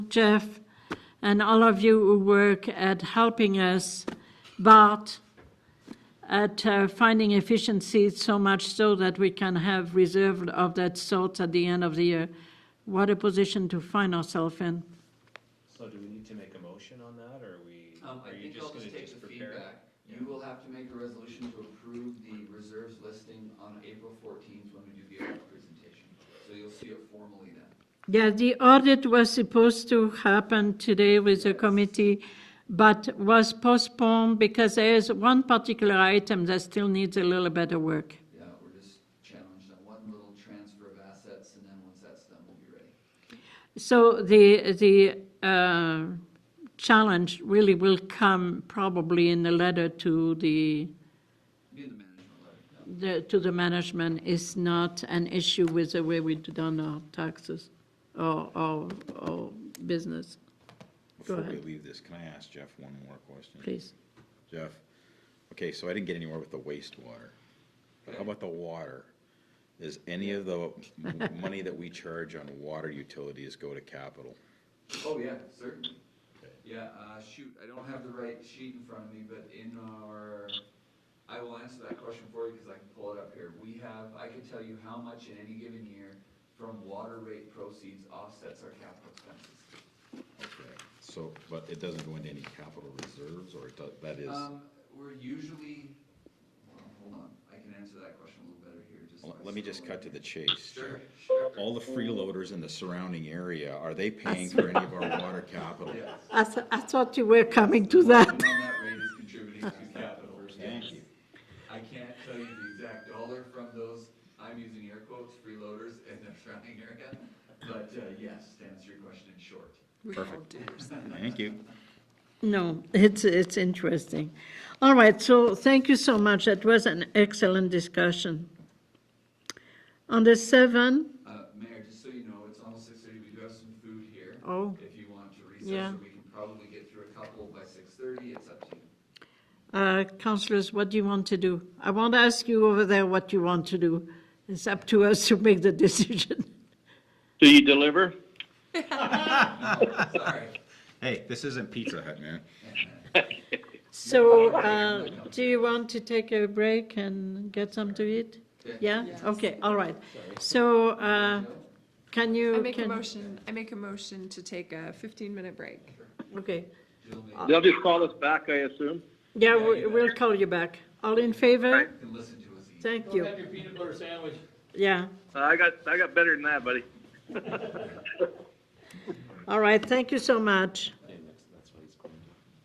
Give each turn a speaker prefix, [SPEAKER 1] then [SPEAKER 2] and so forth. [SPEAKER 1] Jeff, and all of you who work at helping us, Bart, at uh, finding efficiencies so much so that we can have reserve of that sort at the end of the year. What a position to find ourselves in.
[SPEAKER 2] So do we need to make a motion on that, or are we,
[SPEAKER 3] Um, I
[SPEAKER 2] are you
[SPEAKER 3] think
[SPEAKER 2] just
[SPEAKER 3] I'll
[SPEAKER 2] gonna
[SPEAKER 3] just
[SPEAKER 2] just
[SPEAKER 3] take the
[SPEAKER 2] prepare? it?
[SPEAKER 3] feedback. You will have to make a resolution to approve the reserves listing on April fourteenth when we do the audit presentation. So you'll see it formally then.
[SPEAKER 1] Yeah, the audit was supposed to happen today with the committee, but was postponed because there is one particular item that still needs a little bit of work.
[SPEAKER 3] Yeah, we're just challenged on one little transfer of assets and then once that's done, we'll be ready.
[SPEAKER 1] So the, the uh, challenge really will come probably in the letter to the,
[SPEAKER 3] Be in the management letter. yeah.
[SPEAKER 1] the, to the management is not an issue with the way we done our taxes or, or, or business. Go
[SPEAKER 4] Before we
[SPEAKER 1] ahead.
[SPEAKER 4] leave this, can I ask Jeff one more question?
[SPEAKER 1] Please,
[SPEAKER 4] Jeff, okay, so I didn't get anywhere with the wastewater. But how about the water? Does any of the m- money that we charge on water utilities go to capital?
[SPEAKER 3] Oh, yeah, certainly. Yeah, uh, shoot, I don't have the right sheet in front of me, but in our, I will answer that question for you because I can pull it up here. We have, I can tell you how much in any given year from water rate proceeds offsets our capital expenses.
[SPEAKER 4] Okay, So, but it doesn't go into any capital reserves, or it does, that is,
[SPEAKER 3] Um, we're usually, well, hold on, I can answer that question a little better here, just.
[SPEAKER 4] Well,
[SPEAKER 3] by
[SPEAKER 4] let me just cut to
[SPEAKER 3] scrolling.
[SPEAKER 4] the chase. Jeff.
[SPEAKER 3] Sure, sure.
[SPEAKER 4] All the freeloaders in the surrounding area, are they paying for any of our water capital?
[SPEAKER 3] Yes.
[SPEAKER 1] I, th- I thought you were coming to that.
[SPEAKER 3] Working on that rate is contributing to capital.
[SPEAKER 4] Thank you.
[SPEAKER 3] I can't tell you the exact dollar from those, I'm using air quotes, freeloaders in the surrounding area, but uh, yes, to answer your question in short.
[SPEAKER 4] Perfect. Thank you.
[SPEAKER 1] No, it's, it's interesting. All right, so thank you so much. That was an excellent discussion. On the seven,
[SPEAKER 3] Uh, Mayor, just so you know, it's almost six thirty, we do have some food here.
[SPEAKER 1] Oh.
[SPEAKER 3] If you want to
[SPEAKER 1] Yeah.
[SPEAKER 3] recess, or we can probably get through a couple by six thirty, it's up to you.
[SPEAKER 1] uh, councillors, what do you want to do? I won't ask you over there what you want to do. It's up to us to make the decision.
[SPEAKER 5] Do you deliver?
[SPEAKER 3] No, sorry.
[SPEAKER 4] Hey, this isn't Pizza Hut, man.
[SPEAKER 1] So, uh, do you want to take a break and get some to eat? Yeah? Okay, all right. So, uh, can you?
[SPEAKER 6] I make a
[SPEAKER 1] can-
[SPEAKER 6] motion, I make a motion to take a fifteen-minute break.
[SPEAKER 1] Okay.
[SPEAKER 3] Jill may,
[SPEAKER 5] They'll just call us back, I assume.
[SPEAKER 1] Yeah, we- we'll call you back. All in favor?
[SPEAKER 3] you can listen to us eat.
[SPEAKER 1] Thank you.
[SPEAKER 7] Have your peanut butter sandwich.
[SPEAKER 1] Yeah.
[SPEAKER 5] Uh, I got, I got better than that, buddy.
[SPEAKER 1] All right. Thank you so much.